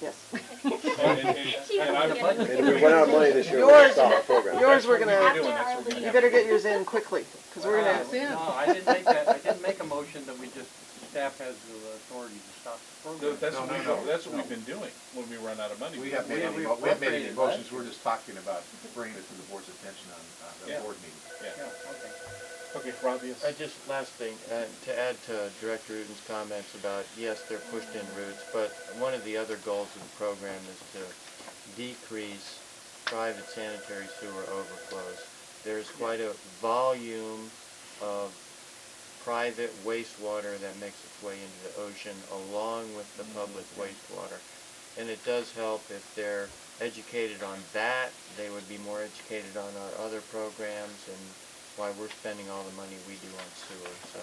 Yes. And- and- and- and I'm- And if we run out of money this year, we're gonna Yours, stop our program. yours we're gonna, After our lead. you better get yours in quickly, because we're gonna, Yeah. No, I didn't make that, I didn't make a motion that we just, staff has the authority to stop the No, program. That's No, what no, we've, no. that's what we've been doing when we run out of money. We have made any, mo- we have made any motions, we're just talking about bringing it to the board's attention on, on Yeah. the board meeting. Yeah. Yeah, okay. Okay, Rob, yes. I just, last thing, uh, to add to Director Uden's comments about, yes, they're pushed in routes, but one of the other goals of the program is to decrease private sanitary sewer overflows. There's quite a volume of private wastewater that makes its way into the ocean along with the public wastewater. And it does help if they're educated on that, they would be more educated on our other programs and why we're spending all the money we do on sewer, so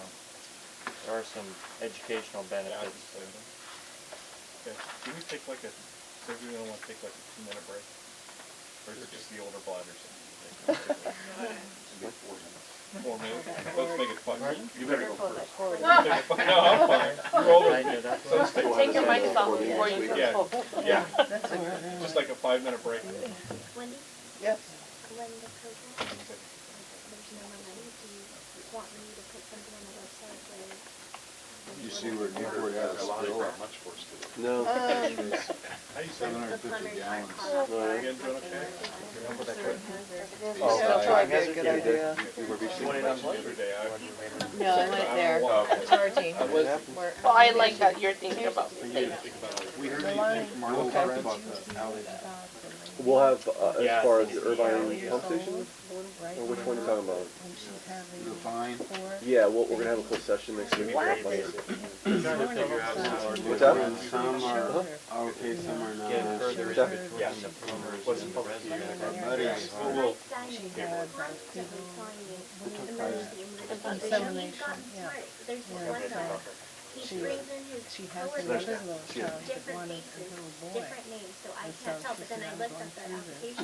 there are some educational Yeah, I benefits. understand. Okay, do we take like a, so we don't wanna take like a two minute break? Or is it just the older bladders? It'll be four minutes. Four minutes, let's make it fun. You better go first. No, I'm fine, you're I older, know that's so stay with Take your us. mic off before you Yeah. go. Yeah, just like a five minute break. Wendy, yes. when the program, there's no money, do you want me to put something on the website where? um, You see where Newport has A lot of still, much for us to do. Oh, no, Um, How you seven doing? hundred fifty You gallons. guys doing okay? Oh. yeah, that's probably a good idea. We were being Went in on lunch the other day, I- No, I went there, Okay. charging. We're- Oh, I like that you're thinking about. We heard anything from our little friends about the outage? We'll have, uh, Yeah. as far as the Irvine pump station, or which one are you talking about? The fine? Yeah, well, we're gonna have a closed session next week. What's that? Some are okay, some are not. Get further in Yeah. between the plumbers and the residents. Buddies. Well. Insemination, yeah. There's this one guy, he's raising his She has coworkers, another little child, but different one is faces, a little boy. different names, so I And can't so tell, she but then I said, looked "I'm up the going through this."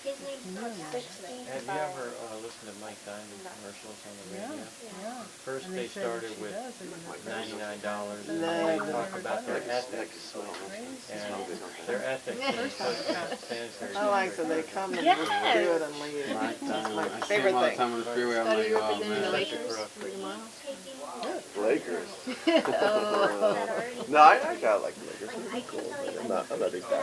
application, his name's not sixteen. Have you ever uh, listened to Mike Diamond commercials on the Yeah, radio? yeah. First And they said if started she with does, it would be ninety-nine dollars, and No. they talk about their Like ethics, crazy. and their ethics and sanitary. I like that they come and just do it and leave. Yes. That's my I favorite all the thing. time on the freeway, I'm like, oh man. Lakers. That already, No, I, I kinda like the Lakers. like, Uh, Oh. I can tell you. I'm not, I'm not a big fan.